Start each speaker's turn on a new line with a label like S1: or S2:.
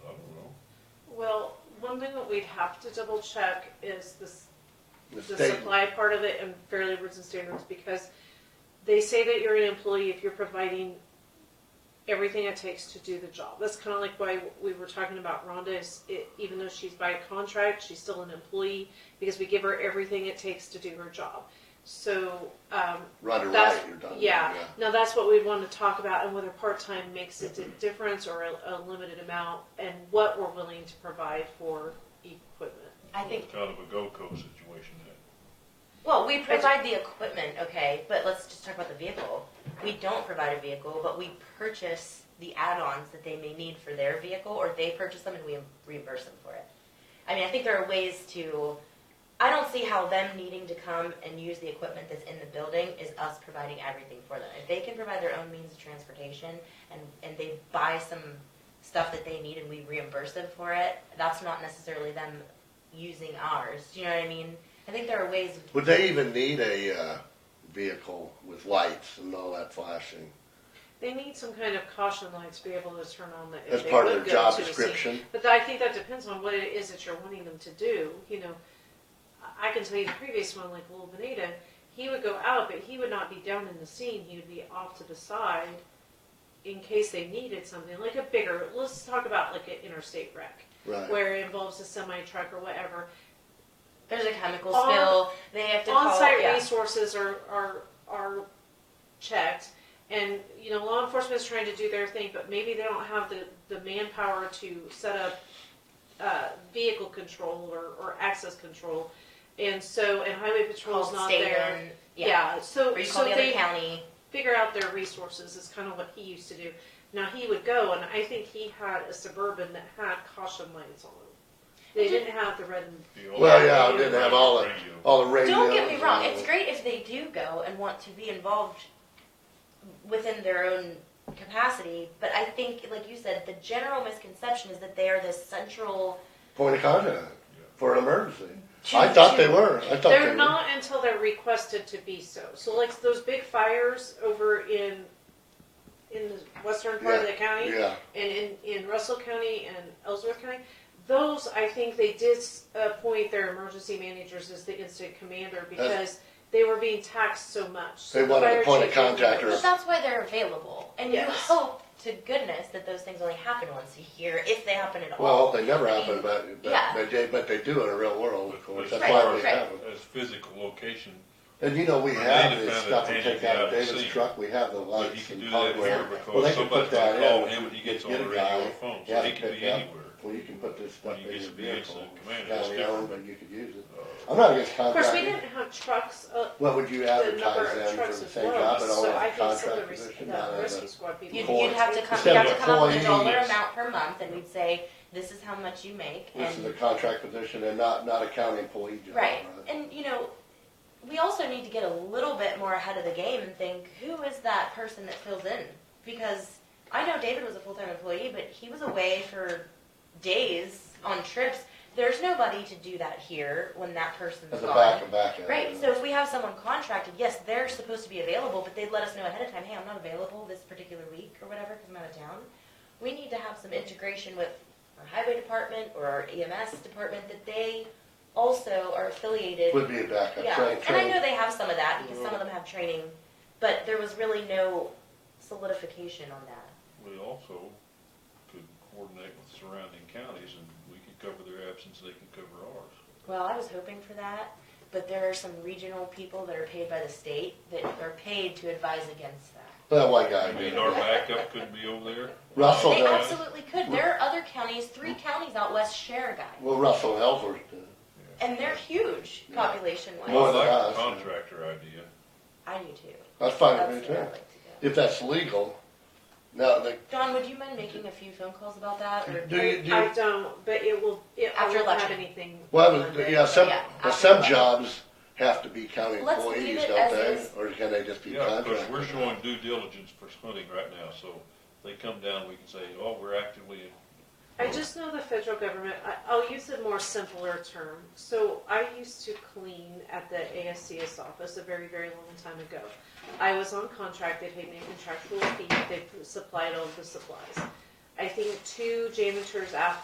S1: we'd have to double check is this,
S2: The
S1: the
S2: state,
S1: supply part of it and fair labors and standards, because they say that you're an employee if you're providing everything it takes to do the job. That's kind of like why we were talking about Rhonda, is it, even though she's by contract, she's still an employee, because we give her everything it takes to do her job. So, um,
S2: right or
S1: that's-
S2: right, you're done.
S1: yeah. Now that's what we want to talk about and whether part-time makes a di- difference or a, a limited amount and what we're willing to provide for equipment.
S3: I think,
S4: It's kind of a Gold Coast situation that
S3: well, we provide the equipment, okay, but let's just talk about the vehicle. We don't provide a vehicle, but we purchase the add-ons that they may need for their vehicle, or they purchase them and we reimburse them for it. I mean, I think there are ways to, I don't see how them needing to come and use the equipment that's in the building is us providing everything for them. If they can provide their own means of transportation and, and they buy some stuff that they need and we reimburse them for it, that's not necessarily them using ours, do you know what I mean? I think there are ways
S2: Would they even need a, uh, vehicle with lights and all that flashing?
S1: They need some kind of caution light to be able to turn on that. if
S2: That's
S1: they
S2: part of
S1: would
S2: their
S1: go
S2: job
S1: to a scene.
S2: description.
S1: But I think that depends on what it is that you're wanting them to do, you know. I I can tell you the previous one, like Little Benita, he would go out, but he would not be down in the scene, he would be off to the side in case they needed something, like a bigger, let's talk about like an interstate wreck.
S2: Right.
S1: where it involves a semi truck or whatever.
S3: There's a chemical
S1: On-
S3: spill. They have to
S1: On
S3: call.
S1: site
S3: yeah.
S1: resources are, are, are checked. And, you know, law enforcement is trying to do their thing, but maybe they don't have the, the manpower to set up uh, vehicle control or, or access control. And so, and highway patrol is
S3: Call
S1: not
S3: state
S1: there.
S3: and yeah.
S1: Yeah, so,
S3: Or you
S1: so
S3: call the other
S1: they
S3: county.
S1: figure out their resources is kind of what he used to do. Now he would go, and I think he had a suburban that had caution lights on them. They didn't have the red and
S4: the old-
S2: Well, yeah, I
S1: Yeah.
S2: didn't have all the,
S4: Radio.
S2: all the radio.
S3: Don't get me wrong. It's great if they do go and want to be involved within their own capacity. But I think, like you said, the general misconception is that they are this central.
S2: Point of contact for an emergency.
S3: to-
S2: I thought they
S3: to-
S2: were, I thought they
S1: They're
S2: were.
S1: not until they're requested to be so. So like those big fires over in, in the western part of the county
S2: Yeah,
S1: and in, in Russell County and Ellsworth County, those, I think they did uh, appoint their emergency managers as the incident commander because they were being taxed so much. So
S2: They
S1: the
S2: wanted a
S1: fire
S2: point of
S1: chief was
S2: contact or-
S1: like,
S3: But that's why they're available, and you
S1: Yes.
S3: hope to goodness that those things only happen once a year, if they happen at
S2: well,
S3: all.
S2: they never happen, but, but
S3: Yeah.
S2: they, did- but they do in a real world, of course, that's
S4: Right,
S2: why we
S3: right.
S2: have them.
S4: as physical location,
S2: And you know, we
S4: Well,
S2: have
S4: they
S2: this
S4: found
S2: stuff
S4: a
S2: we take
S4: tank
S2: out of
S4: out at
S2: David's
S4: sea.
S2: truck, we have the
S4: but he
S2: lights
S4: can
S2: and
S4: do that here
S2: hardware.
S3: everywhere.
S2: Well, they
S4: because
S2: can put
S4: somebody's
S2: that
S4: gonna call
S2: in.
S4: him and he gets on
S2: Get
S4: the
S2: a
S4: radio
S2: guy,
S4: or phone,
S2: yeah,
S4: so he can
S2: pick
S4: be
S2: up.
S4: anywhere.
S2: Well, you can put this stuff
S4: When you
S2: in
S4: get
S2: your
S4: to be
S2: vehicle,
S4: incident commander,
S2: down
S4: it's
S2: the
S4: different.
S2: road, but you could use it.
S4: Uh,
S2: I'm not against
S1: Of course, we
S2: contracting,
S1: didn't have trucks, uh,
S2: well, would you
S1: the number
S2: advertise
S1: of
S2: them
S1: trucks
S2: for the
S1: as
S2: same job,
S1: well,
S2: but all
S1: so I
S2: the
S1: think some of
S2: contract
S1: the res-
S2: position, not
S1: the
S2: as
S1: rescue squad people.
S3: You'd,
S2: Employees.
S3: you'd have to come,
S2: Instead
S3: you'd have
S2: of
S3: to come up with a dollar
S2: employees.
S3: amount per month, and we'd say, this is how much you make,
S2: a, this is a
S3: and,
S2: contract position and not, not a county employee job.
S3: right, and, you know, we also need to get a little bit more ahead of the game and think, who is that person that fills in? Because I know David was a full-time employee, but he was away for days on trips, there's nobody to do that here when that person's
S2: As a
S3: gone.
S2: back and back. end,
S3: Right,
S2: you
S3: so
S2: know.
S3: if we have someone contracted, yes, they're supposed to be available, but they'd let us know ahead of time, hey, I'm not available this particular week or whatever, because I'm out of town. We need to have some integration with our highway department or our EMS department that they also are affiliated.
S2: Would be a Mm-hmm. backup,
S3: Yeah,
S2: train,
S3: and I
S2: train,
S3: know they have some of that, because some of them have training, but there was really no solidification on that.
S4: We also could coordinate with surrounding counties and we could cover their absence, they could cover ours.
S3: Well, I was hoping for that, but there are some regional people that are paid by the state that are paid to advise against that.
S2: that one guy
S4: I
S2: did.
S4: mean, our backup could be over there.
S2: Russell
S3: They
S2: does,
S3: absolutely could. There are other counties, three counties out west share a guy.
S2: well, Russell Ellsworth did.
S3: And they're huge
S2: Yeah.
S3: population
S4: I
S2: More
S3: wise.
S2: than
S4: like
S2: us.
S4: the contractor idea.
S3: I do too.
S2: That's fine with
S3: That's
S2: me
S3: where
S2: too.
S3: I'd like to go.
S2: If that's legal, now, they,
S3: Don, would you mind making a few phone calls about that? Or
S2: do you, do you?
S1: I don't, but it will, it I won't
S3: After
S1: have
S3: election.
S1: anything.
S2: Well,
S1: on
S2: but,
S1: it.
S2: yeah, some,
S3: Yeah,
S2: but
S3: after
S2: some
S3: that.
S2: jobs have to be county
S3: Let's leave
S2: employees,
S3: it
S2: don't
S3: as
S2: they?
S3: is.
S2: Or can they just be
S4: Yeah, because we're
S2: contractors?
S4: showing due diligence for hunting right now, so they come down, we can say, oh, we're actively
S1: I just know the federal government, I, I'll use a more simpler term. So I used to clean at the ASCS office a very, very long time ago. I was on contract, they paid me a contractual fee, they supplied all the supplies. I think two janitors after